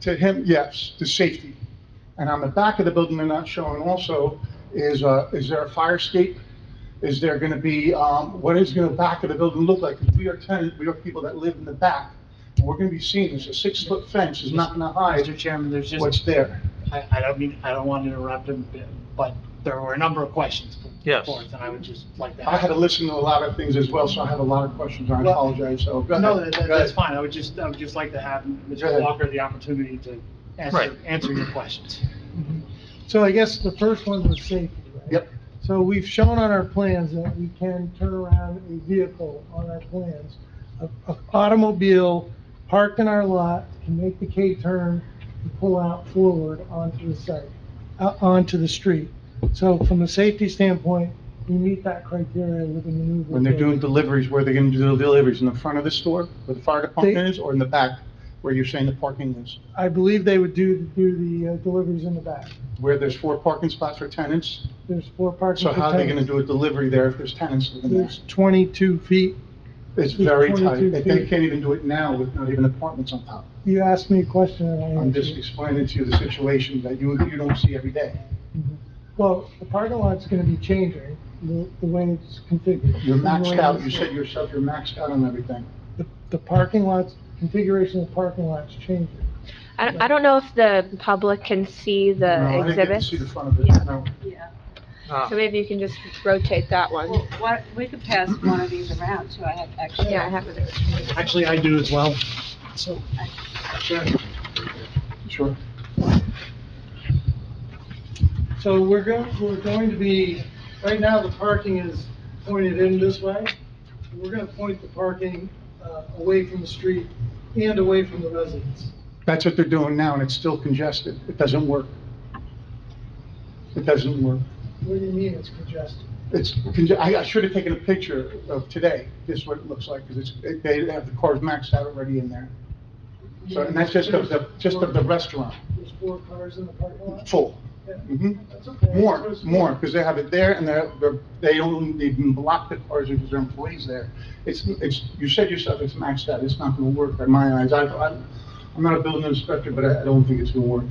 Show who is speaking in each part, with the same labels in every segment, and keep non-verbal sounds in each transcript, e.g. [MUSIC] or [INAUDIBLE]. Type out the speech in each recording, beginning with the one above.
Speaker 1: To him, yes, to safety. And on the back of the building, they're not showing also, is, uh, is there a fire escape? Is there gonna be, um, what is gonna back of the building look like? 'Cause we are tenants, we are people that live in the back. And We're gonna be seeing, this. a six-foot fence is not gonna
Speaker 2: Mr.
Speaker 1: hide
Speaker 2: Chairman, there's
Speaker 1: what's
Speaker 2: just,
Speaker 1: there.
Speaker 2: I, I don't mean, I don't want to interrupt him, but there were a number of questions. put
Speaker 3: Yes.
Speaker 2: forth, And I would just like to.
Speaker 1: I had to listen to a lot of things as well, so I have a lot of questions, I
Speaker 2: Well,
Speaker 1: apologize, so go ahead.
Speaker 2: No, that- that-
Speaker 1: Go ahead.
Speaker 2: that's fine. I would just, I would just like to have
Speaker 1: Go
Speaker 2: Mr.
Speaker 1: ahead.
Speaker 2: Walker the opportunity to
Speaker 3: Right.
Speaker 2: answer, answer your questions.
Speaker 4: So I guess the first one was safety, right?
Speaker 1: Yep.
Speaker 4: So we've shown on our plans that we can turn around a vehicle on our plans. A a automobile parked in our lot can make the K-turn and pull out forward onto the site, uh, onto the street. So from a safety standpoint, we meet that criteria with the maneuver.
Speaker 1: When they're doing
Speaker 4: ability.
Speaker 1: deliveries, where they're gonna do the deliveries, in the front of the store, where the fire department
Speaker 4: They-
Speaker 1: is, or in the back, where you're saying the parking is?
Speaker 4: I believe they would do, do the uh, deliveries in the back.
Speaker 1: Where there's four parking spots for tenants,
Speaker 4: There's four parking.
Speaker 1: so how are they gonna
Speaker 4: containers.
Speaker 1: do a delivery there if there's tenants living there?
Speaker 4: There's 22 feet
Speaker 1: It's very
Speaker 4: It's
Speaker 1: tight,
Speaker 4: 22
Speaker 1: they they
Speaker 4: feet.
Speaker 1: can't even do it now with not even apartments on top.
Speaker 4: You asked me a question and I
Speaker 1: I'm
Speaker 4: answered.
Speaker 1: just
Speaker 4: it.
Speaker 1: explaining to you the situation that you, you don't see every day.
Speaker 4: Well, the parking lot's gonna be changing, the, the way it's configured.
Speaker 1: You're maxed out, you
Speaker 4: The way
Speaker 1: said
Speaker 4: it's-
Speaker 1: yourself, you're maxed out on everything.
Speaker 4: The, the parking lots, configuration of the parking lot's changing.
Speaker 5: I don't, I don't know if the public can see
Speaker 1: No,
Speaker 5: the
Speaker 1: I didn't get to
Speaker 5: exhibits.
Speaker 1: see the front of
Speaker 5: Yeah.
Speaker 1: it, no.
Speaker 6: Yeah,
Speaker 3: Ah,
Speaker 5: So maybe you can just rotate that one.
Speaker 6: well, why- we could pass one of these around, too, I have extra.
Speaker 5: Yeah, I have it.
Speaker 2: Actually, I do as well. So, sure.
Speaker 1: Sure.
Speaker 4: So we're going, we're going to be, right now, the parking is pointed in this way. We're gonna point the parking, uh, away from the street and away from the residents.
Speaker 1: That's what they're doing now, and it's still congested. It doesn't work. It doesn't work.
Speaker 4: What do you mean it's congested?
Speaker 1: It's, conge- I I should have taken a picture of today, this is what it looks like, because it's, it- they have the cars maxed out already in there. So, and that's just of the, just of the restaurant,
Speaker 4: There's four cars in the parking lot?
Speaker 1: full.
Speaker 4: Yeah.
Speaker 1: Mhm.
Speaker 4: That's okay.
Speaker 1: More, more, because they have it there, and they're, they're- they don't even block the cars because their employees there. It's, it's, you said yourself, it's maxed out, it's not gonna work in my eyes. I, I- I'm not a building inspector, but I I don't think it's gonna work.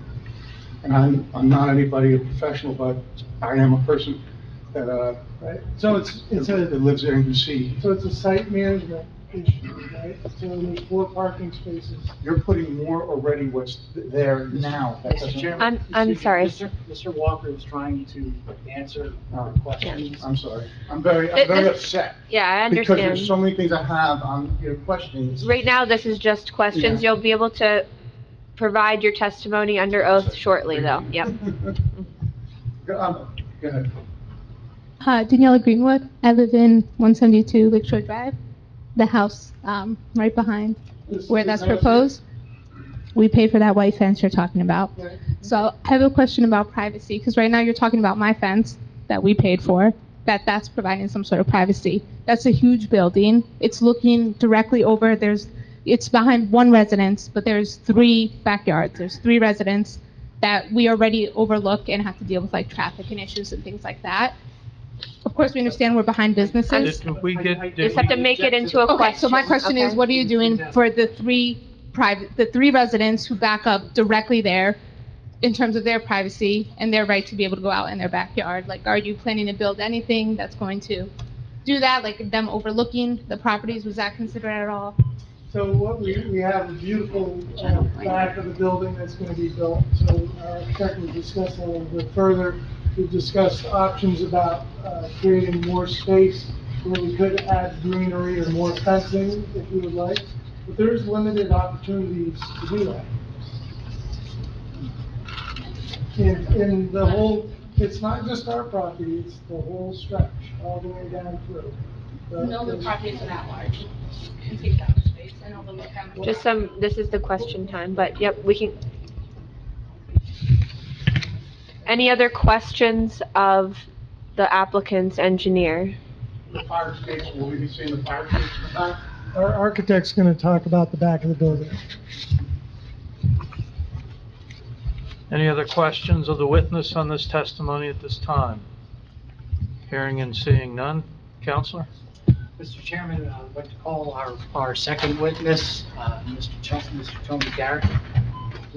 Speaker 1: And I'm, I'm not anybody, a professional, but I am a person that, uh,
Speaker 4: Right, so it's, it's a,
Speaker 1: That lives there and can see.
Speaker 4: So it's a site management issue, right? So there's four parking spaces.
Speaker 1: You're putting more already what's there now. That
Speaker 2: Mr.
Speaker 1: doesn't-
Speaker 2: Chairman.
Speaker 5: I'm- I'm
Speaker 2: excuse me,
Speaker 5: sorry.
Speaker 2: Mr. Mr. Walker is trying to answer
Speaker 1: Uh,
Speaker 2: our questions.
Speaker 1: I'm sorry. I'm very, I'm
Speaker 5: Th-
Speaker 1: very
Speaker 5: this-
Speaker 1: upset.
Speaker 5: Yeah, I
Speaker 1: Because
Speaker 5: understand.
Speaker 1: there's so many things I have on your questions.
Speaker 5: Right now, this is just questions.
Speaker 1: Yeah.
Speaker 5: You'll be able to provide your testimony under oath shortly, though. Yep.
Speaker 1: Go [LAUGHS] um, go ahead.
Speaker 7: Hi, Uh, Daniela Greenwood. I live in 172 Lakeshore Drive, the house um, right behind where that's proposed. We pay for that white fence you're talking about.
Speaker 4: Right.
Speaker 7: So I have a question about privacy because right now you're talking about my fence that we paid for. That that's providing some sort of privacy. That's a huge building. It's looking directly over. There's it's behind one residence, but there's three backyards. There's three residents that we already overlook and have to deal with like traffic and issues and things like that. Of course, we understand we're behind businesses.
Speaker 3: Did we get-
Speaker 2: I- I-
Speaker 3: did
Speaker 5: You just have to make it into a question.
Speaker 7: Okay, so my question is,
Speaker 5: okay?
Speaker 7: what are you doing for the three private, the three residents who back up directly there in terms of their privacy and their right to be able to go out in their backyard? Like, are you planning to build anything that's going to do that, like them overlooking the properties? Was that considered at all?
Speaker 4: So what we, we have a beautiful uh, back of the building that's going to be built. So uh, in fact, we discussed that a little bit further. We discussed options about uh, creating more space where we could add greenery or more fencing if we would like. But there's limited opportunities to do that. And, and the whole, it's not just our property, it's the whole stretch, all the way down through. But there's-
Speaker 7: are that large. You take up space and overlook them.
Speaker 5: Just some, this is the question time, but yep, we can. Any other questions of the applicant's engineer?
Speaker 1: The fire station, will we be seeing the fire station? in the back?
Speaker 4: Our architect's gonna talk about the back of the building.
Speaker 3: Any other questions of the witness on this testimony at this time? Hearing and seeing none. Counselor?
Speaker 2: Mr. Chairman, uh, I'd like to call our, our second witness, uh, Mr. Ch- Mr. Tony Garrett.